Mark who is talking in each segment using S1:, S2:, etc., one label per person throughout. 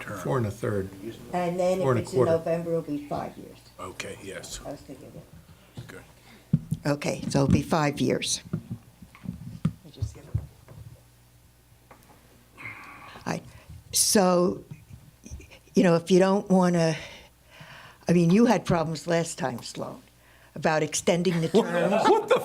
S1: term.
S2: Four and a third.
S3: And then
S2: Four and
S3: if
S2: a
S3: it's in
S2: quarter.
S3: November, it'll be five years.
S1: Okay, yes,
S3: I was thinking that.
S1: good.
S3: Okay, so it'll be five years. All right, so, you know, if you don't want to, I mean, you had problems last time, Sloan, about extending the terms. What the?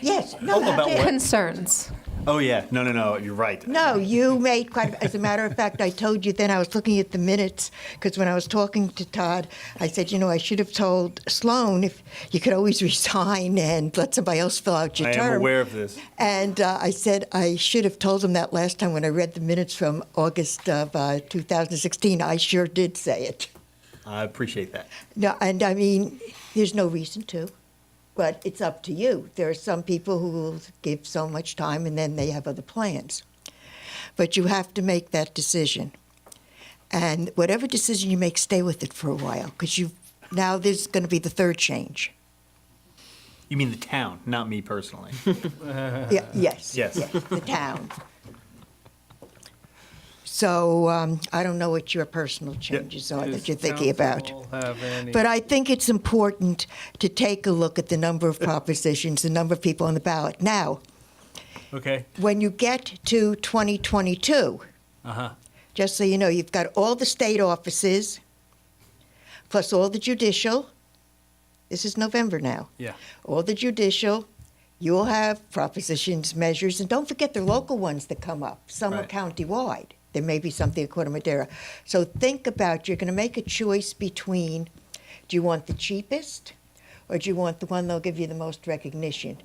S3: Yes, no,
S4: Oh, about
S3: I did.
S4: what?
S5: Concerns.
S4: Oh, yeah, no, no, no, you're right.
S3: No, you made quite, as a matter of fact, I told you then, I was looking at the minutes, because when I was talking to Todd, I said, you know, I should have told Sloan if, you could always resign and let somebody else fill out your
S4: I
S3: term.
S4: am aware of this.
S3: And uh, I said I should have told him that last time when I read the minutes from August of uh, 2016. I sure did say it.
S4: I appreciate that.
S3: No, and I mean, there's no reason to, but it's up to you. There are some people who will give so much time and then they have other plans. But you have to make that decision. And whatever decision you make, stay with it for a while because you now this is going to be the third change.
S4: You mean the town, not me personally.
S3: Yeah, yes.
S4: Yes.
S3: The town. So um, I don't know what your personal changes are that you're thinking about. But I think it's important to take a look at the number of propositions, the number of people on the ballot. Now,
S4: Okay.
S3: when you get to 2022,
S6: uh-huh.
S3: just so you know, you've got all the state offices, plus all the judicial. This is November now.
S4: Yeah.
S3: All the judicial. You'll have propositions, measures, and don't forget the local ones that come up. Some are
S4: Right.
S3: countywide. There may be something at Corte Madera. So think about you're going to make a choice between do you want the cheapest or do you want the one that'll give you the most recognition?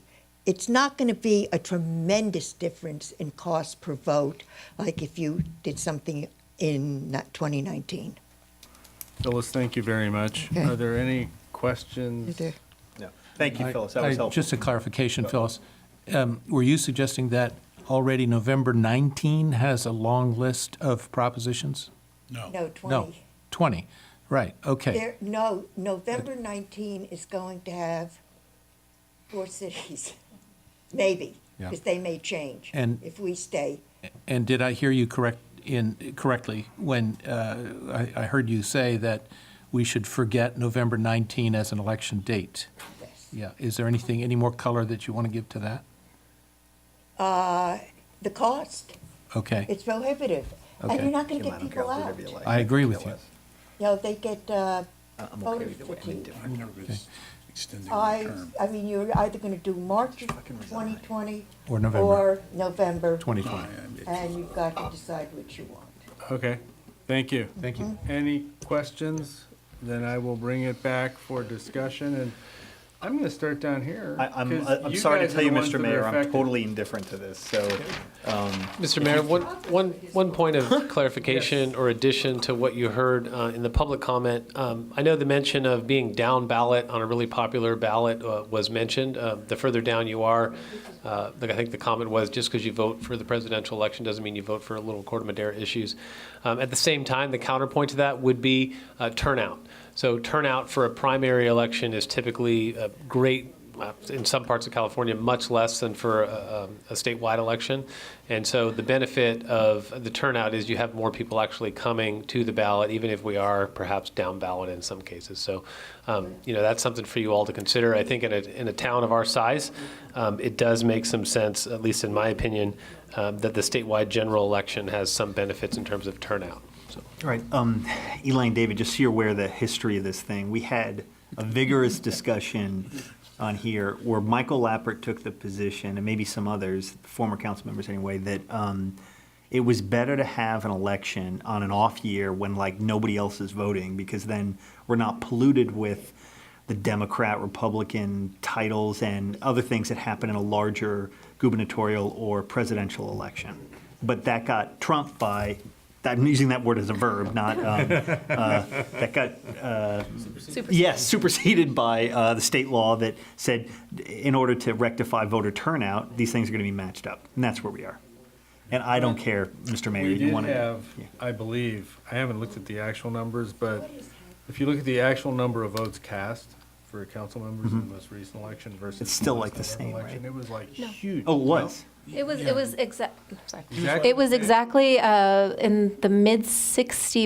S3: It's not going to be a tremendous difference in cost per vote like if you did something in not 2019.
S6: Phyllis, thank you very much.
S3: Okay.
S6: Are there any questions?
S4: No. Thank you,
S2: I-
S4: Phyllis, that was
S2: I-
S4: helpful.
S2: Just a clarification, Phyllis. Um, Were you suggesting that already November 19 has a long list of propositions?
S1: No,
S3: No, 20.
S2: No, 20, right, okay.
S3: There, no, November 19 is going to have four cities, maybe,
S2: Yeah.
S3: because they may change
S2: And-
S3: if we stay.
S2: And did I hear you correct, in, correctly, when uh, I I heard you say that we should forget November 19 as an election date?
S3: Yes.
S2: Yeah, is there anything, any more color that you want to give to that?
S3: Uh, The cost,
S2: Okay,
S3: it's prohibitive, and
S2: Okay.
S3: you're not going to
S4: Jim, I
S3: get people
S4: don't care
S3: out.
S4: whatever you
S3: You
S4: like.
S2: I agree with you.
S3: know, they get uh,
S4: I- I'm okay
S3: voter
S4: with it. I'm
S3: fatigue.
S4: indifferent.
S1: I'm nervous extending the
S3: I,
S1: term.
S3: I mean, you're either going to do March of
S4: Fucking resign.
S3: 2020
S2: Or November.
S3: or November,
S2: 2020,
S3: and you've got to decide what you want.
S6: Okay, thank you.
S2: thank you.
S6: Any questions? Then I will bring it back for discussion, and I'm going to start down here.
S4: I- I'm,
S6: 'cause
S4: I- I'm sorry
S6: guys
S4: to
S6: are
S4: tell you,
S6: the ones that
S4: Mr.
S6: are
S4: Mayor, I'm
S6: affected.
S4: totally indifferent to this, so.
S7: Mr. Mayor, one, one, one point of clarification or addition to what you heard uh, in the public comment. Um, I know the mention of being down ballot on a really popular ballot uh, was mentioned. Uh, The further down you are, uh, like I think the comment was, just because you vote for the presidential election doesn't mean you vote for little Corte Madera issues. Um, At the same time, the counterpoint to that would be uh, turnout. So turnout for a primary election is typically a great uh, in some parts of California, much less than for a, um, a a statewide election. And so the benefit of the turnout is you have more people actually coming to the ballot, even if we are perhaps down ballot in some cases. So, um, you know, that's something for you all to consider. I think in a, in a town of our size, um, it does make some sense, at least in my opinion, um, that the statewide general election has some benefits in terms of turnout. So.
S4: All right, um, Elaine, David, just so you're aware of the history of this thing, we had a vigorous discussion on here where Michael Lappert took the position, and maybe some others, former council members anyway, that um, it was better to have an election on an off year when like nobody else is voting because then we're not polluted with the Democrat, Republican titles and other things that happen in a larger gubernatorial or presidential election. But that got trumped by, I'm using that word as a verb, not, um, uh, that got, uh, yes, superseded by uh, the state law that said in order to rectify voter turnout, these things are going to be matched up. And that's where we are. And I don't care, Mr. Mayor,
S6: We
S4: you
S6: did
S4: want to.
S6: have, I believe, I haven't looked at the actual numbers, but if you look at the actual number of votes cast for council members in the most recent election versus.
S4: Mm-hmm. It's still, like, the
S6: last
S4: same,
S6: election,
S4: right?
S6: It was like huge.
S4: Oh, it was?
S5: It was, it was exact, sorry.
S6: Exactly.
S5: It was exactly uh, in the mid 60